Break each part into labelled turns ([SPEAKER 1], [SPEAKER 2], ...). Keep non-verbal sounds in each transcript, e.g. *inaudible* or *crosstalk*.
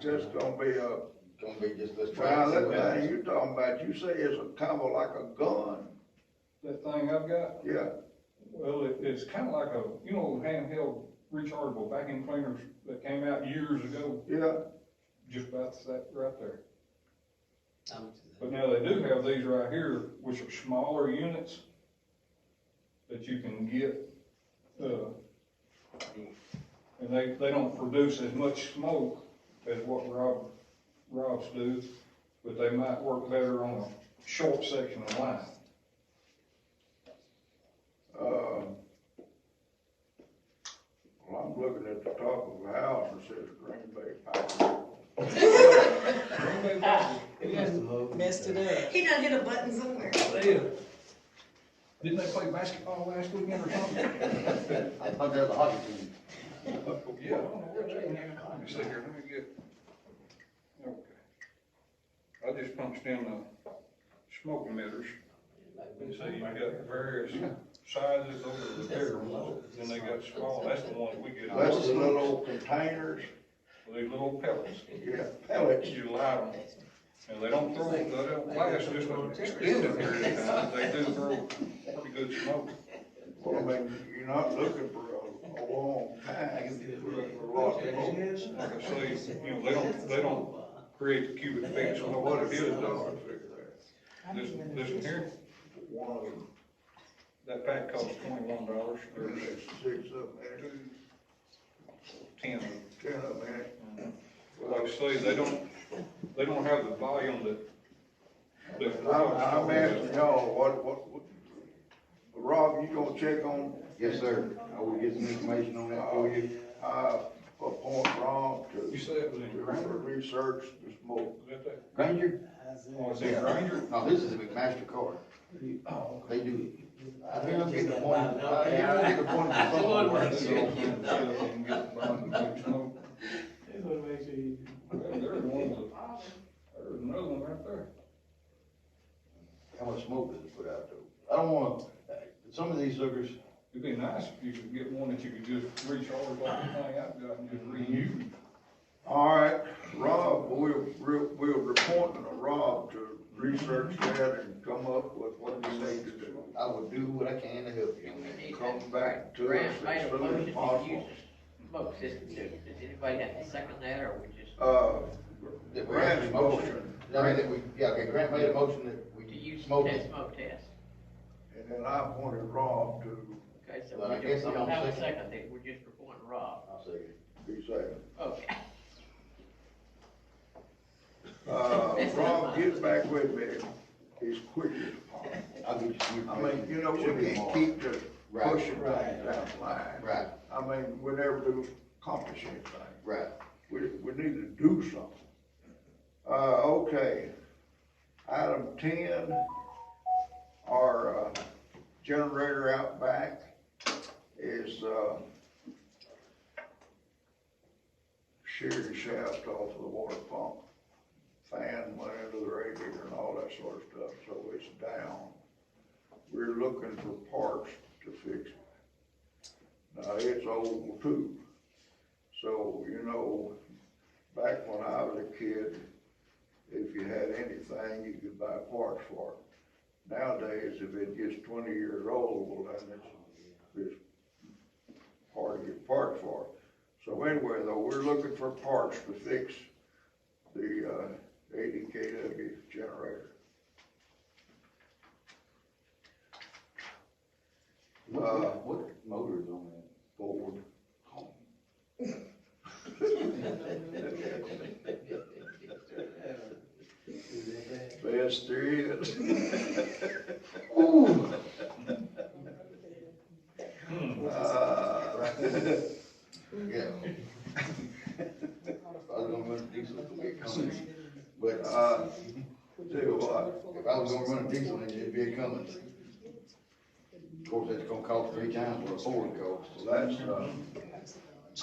[SPEAKER 1] just gonna be a,
[SPEAKER 2] Gonna be just, let's try.
[SPEAKER 1] well,
[SPEAKER 2] and see
[SPEAKER 1] that
[SPEAKER 2] what
[SPEAKER 1] thing
[SPEAKER 2] happens.
[SPEAKER 1] you talking about, you say it's a kind of like a gun,
[SPEAKER 3] That thing I've got,
[SPEAKER 1] yeah,
[SPEAKER 3] well, it, it's kinda like a, you know, handheld rechargeable vacuum cleaners that came out years ago,
[SPEAKER 1] yeah,
[SPEAKER 3] just about that right there.
[SPEAKER 4] I would do that.
[SPEAKER 3] But now they do have these right here, which are smaller units that you can get, uh, and they, they don't produce as much smoke as what Rob, Rob's do, but they might work better on a short section of line.
[SPEAKER 1] um. Well, I'm looking at the top of the house, it says Green Bay Packers.
[SPEAKER 4] It must have moved.
[SPEAKER 5] Messed it up.
[SPEAKER 6] He done hit a button somewhere.
[SPEAKER 3] Didn't they play basketball last weekend or something?
[SPEAKER 2] I thought that was a hockey team.
[SPEAKER 3] Yeah. I don't know where they were. Let me see here, let me get, okay. I just punched in the smoke emitters. And so you got various sizes over the bigger ones, then they got small, that's the one we get.
[SPEAKER 1] That's the
[SPEAKER 3] These
[SPEAKER 1] little old containers,
[SPEAKER 3] little pellets,
[SPEAKER 1] yeah, pellets,
[SPEAKER 3] you light them, and they don't throw, they don't last just an extended period of time, they do throw pretty good smoke.
[SPEAKER 1] well, I mean, you're not looking for a, a long time. For a lot of people.
[SPEAKER 3] Like I say, you know, they don't, they don't create the cubic feet, so what it is, though. This, this here,
[SPEAKER 1] One of them,
[SPEAKER 3] that pack costs twenty-one dollars, there's
[SPEAKER 1] six, six of them,
[SPEAKER 3] ten.
[SPEAKER 1] ten of them,
[SPEAKER 3] Like I say, they don't, they don't have the volume that. that-
[SPEAKER 1] I'm, I'm asking y'all, what, what, what, Rob, you gonna check on,
[SPEAKER 2] Yes, sir. I will get some information on that for you.
[SPEAKER 1] uh, appoint Rob
[SPEAKER 3] You
[SPEAKER 1] to,
[SPEAKER 3] say it was in
[SPEAKER 1] to
[SPEAKER 3] Granger?
[SPEAKER 1] research the smoke?
[SPEAKER 3] Is that that?
[SPEAKER 2] Granger?
[SPEAKER 3] Oh, it's in Granger?
[SPEAKER 2] No, this is a McMaster card.
[SPEAKER 3] Oh,
[SPEAKER 2] They do it. I think I'm getting appointed. I think I'm getting appointed to
[SPEAKER 4] Come on,
[SPEAKER 2] somewhere.
[SPEAKER 4] man.
[SPEAKER 3] There's one, of the- there's another one right there.
[SPEAKER 2] How much smoke does it put out though? I don't wanna, uh, some of these suckers,
[SPEAKER 3] It'd be nice if you could get one that you could just recharge like the thing I've got and just reuse.
[SPEAKER 1] All right, Rob, we'll, we'll, we'll report to Rob to research that and come up with what we need to do.
[SPEAKER 2] I will do what I can to help you.
[SPEAKER 1] Come back to us
[SPEAKER 7] Grant made
[SPEAKER 1] as
[SPEAKER 7] a
[SPEAKER 1] soon
[SPEAKER 7] motion
[SPEAKER 1] as
[SPEAKER 7] to use
[SPEAKER 1] possible.
[SPEAKER 7] smoke system, does anybody have to second that, or we just,
[SPEAKER 1] Uh,
[SPEAKER 2] That we have
[SPEAKER 1] Grant's
[SPEAKER 2] a motion.
[SPEAKER 1] motion,
[SPEAKER 2] I mean, that we, yeah, okay, Grant made a motion that we
[SPEAKER 7] to use
[SPEAKER 2] smoke
[SPEAKER 7] that
[SPEAKER 2] it.
[SPEAKER 7] smoke test?
[SPEAKER 1] and then I appointed Rob to
[SPEAKER 7] Okay, so
[SPEAKER 2] Well, I
[SPEAKER 7] we
[SPEAKER 2] guess
[SPEAKER 7] don't,
[SPEAKER 2] I'm
[SPEAKER 7] we don't
[SPEAKER 2] on
[SPEAKER 7] have a
[SPEAKER 2] second.
[SPEAKER 7] second, then we're just reporting Rob,
[SPEAKER 2] I'll second.
[SPEAKER 1] be safe.
[SPEAKER 7] okay.
[SPEAKER 1] Uh, Rob, get back with me as quick as possible.
[SPEAKER 2] I'll get you some
[SPEAKER 1] I
[SPEAKER 2] information.
[SPEAKER 1] mean, you know,
[SPEAKER 2] Should
[SPEAKER 1] we
[SPEAKER 2] be
[SPEAKER 1] can't
[SPEAKER 2] tomorrow.
[SPEAKER 1] keep just
[SPEAKER 2] Right.
[SPEAKER 1] pushing things down the line.
[SPEAKER 2] Right,
[SPEAKER 1] I mean, we never do accomplish anything.
[SPEAKER 2] right.
[SPEAKER 1] We, we need to do something. Uh, okay. Item ten, our, uh, generator out back is, uh, sheared the shaft off of the water pump. Fan went into the radiator and all that sort of stuff, so it's down. We're looking for parts to fix it. Now, it's old too. So, you know, back when I was a kid, if you had anything, you could buy parts for it. Nowadays, if it gets twenty years old, well, then it's, it's hard to get parts for. it. So anyway, though, we're looking for parts to fix the, uh, eighty KW generator. Uh,
[SPEAKER 2] What, what motor is on that?
[SPEAKER 1] Ford, best there is. *laughs* Uh, *laughs*
[SPEAKER 2] Yeah. If I was gonna run a diesel, it's gonna be a Cummins, but, uh,
[SPEAKER 1] Uh, do what?
[SPEAKER 2] if I was gonna run a diesel, then it'd be a Cummins. Of course, that's gonna cost three times what a Ford costs.
[SPEAKER 1] Well, that's, uh,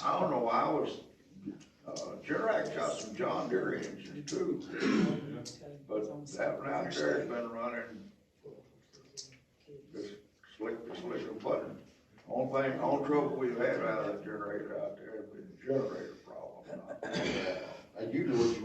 [SPEAKER 1] I don't know, I was, uh, Jerax got some John Deere engines too. But that one out there's been running just slick, to slick a button. Only thing, only trouble we've had out of that generator out there has been generator problem.
[SPEAKER 2] Uh, usually what you